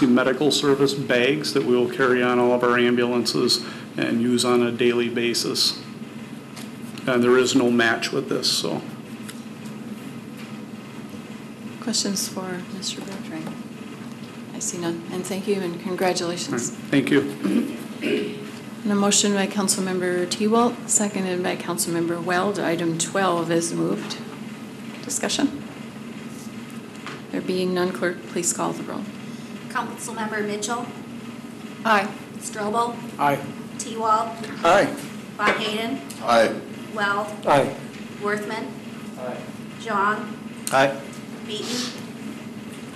emergency medical service bags that we'll carry on all of our ambulances and use on a daily basis. And there is no match with this, so. Questions for Mr. Bertrand? I see none, and thank you and all right, congratulations. Thank you. And a motion by Councilmember T-Walt, seconded by Councilmember Weld. Item 12 is moved. Discussion? There being none, clerk, please call the roll. Councilmember Mitchell, Aye. Strobel, Aye. T-Wall, Aye. Von Hayden, Aye. Weld, Aye. Worthman, John, Aye. Beaton,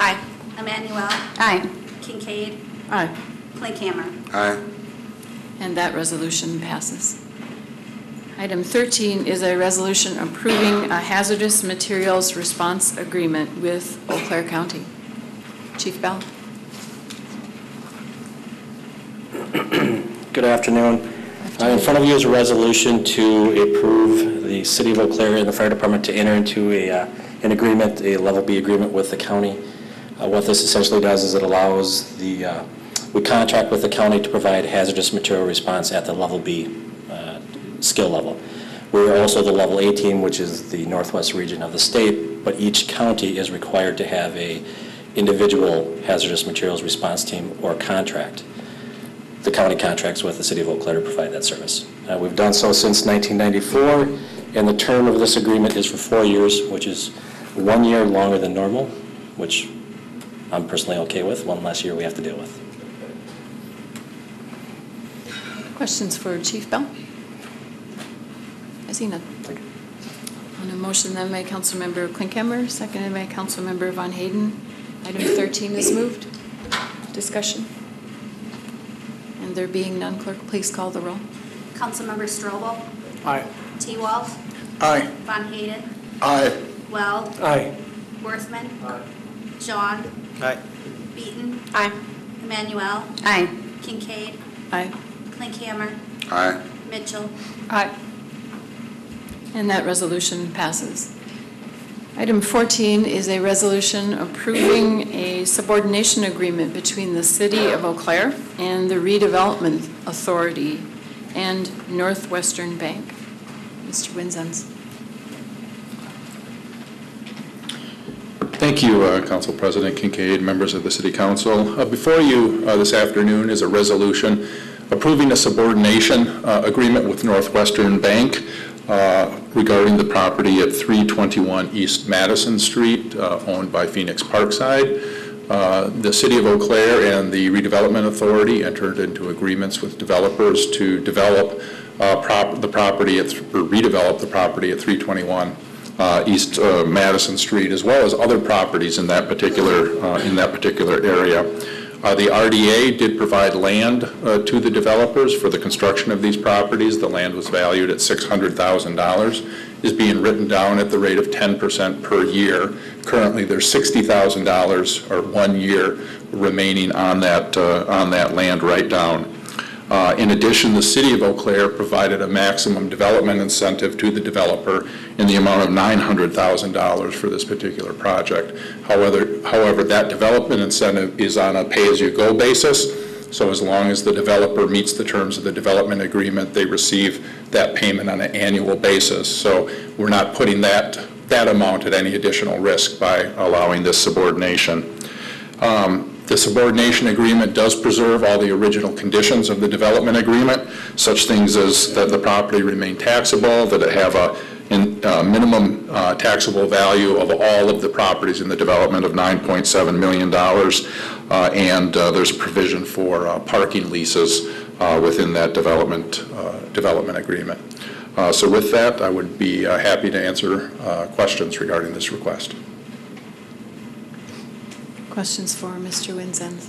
Aye. Emmanuel, Aye. Kincaid, Aye. Clinkhammer. Aye. And that resolution passes. Item 13 is a resolution approving a hazardous materials response agreement with Eau Claire County. Chief Bell? Good afternoon. Uh, In front of you is a resolution to approve the City of Eau Claire and the Fire Department to enter into a, uh, an agreement, a Level B agreement with the county. Uh, What this essentially does is it allows the, uh, we contract with the county to provide hazardous material response at the Level B uh, skill level. We're also the Level A team, which is the northwest region of the state, but each county is required to have a individual hazardous materials response team or contract the county contracts with the city of Eau Claire to provide that service. Uh, We've done so since 1994, and the term of this agreement is for four years, which is one year longer than normal, which I'm personally okay with, one less year we have to deal with. Questions for Chief Bell? I see none. On a motion then by Councilmember Klinkhammer, seconded by Councilmember Von Hayden, item 13 is moved. Discussion? And there being none, clerk, please call the roll. Councilmember Strobel, Aye. T-Wall, Aye. Von Hayden, Aye. Weld, Aye. Worthman, John, Aye. Beaton, Aye. Emmanuel, Aye. Kincaid, Aye. Clinkhammer, Aye. Mitchell. Aye. And that resolution passes. Item 14 is a resolution approving a subordination agreement between the City of Eau Claire and the Redevelopment Authority and Northwestern Bank. Mr. Winzenz. Thank you, uh, Council President Kincaid, members of the City Council. Uh, Before you uh, this afternoon is a resolution approving a subordination uh, agreement with Northwestern Bank uh, regarding the property at 321 East Madison Street, uh, owned by Phoenix Parkside. Uh, The City of Eau Claire and the Redevelopment Authority entered into agreements with developers to develop uh, prop- the property, at th- or redevelop the property at 321 uh, East uh, Madison Street, as well as other properties in that particular, uh, in that particular area. Uh, The RDA did provide land uh, to the developers for the construction of these properties. The land was valued at $600,000, is being written down at the rate of 10% per year. Currently, there's $60,000 or one year remaining on that, uh, on that land write-down. Uh, In addition, the city of Eau Claire provided a maximum development incentive to the developer in the amount of $900,000 for this particular project. However, however, that development incentive is on a pay-as-you-go basis, so as long as the developer meets the terms of the development agreement, they receive that payment on an annual basis. So we're not putting that, that amount at any additional risk by allowing this subordination. Um, The subordination agreement does preserve all the original conditions of the development agreement, such things as that the property remain taxable, that it have a in- uh, minimum uh, taxable value of all of the properties in the development of $9.7 million, uh, and uh, there's a provision for uh, parking leases uh, within that development, uh, development agreement. Uh, So with that, I would be uh, happy to answer uh, questions regarding this request. Questions for Mr. Winzenz?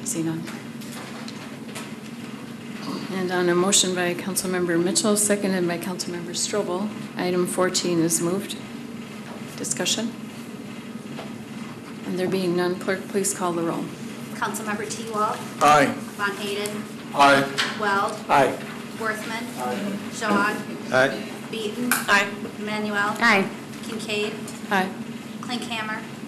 I see none. And on a motion by Councilmember Mitchell, seconded by Councilmember Strobel, item 14 is moved. Discussion? And there being none, clerk, please call the roll. Councilmember T-Wall, Aye. Von Hayden, Aye. Weld, Aye. Worthman, John, Aye. Beaton, Aye. Emmanuel, Aye. Kincaid, Aye. Clinkhammer,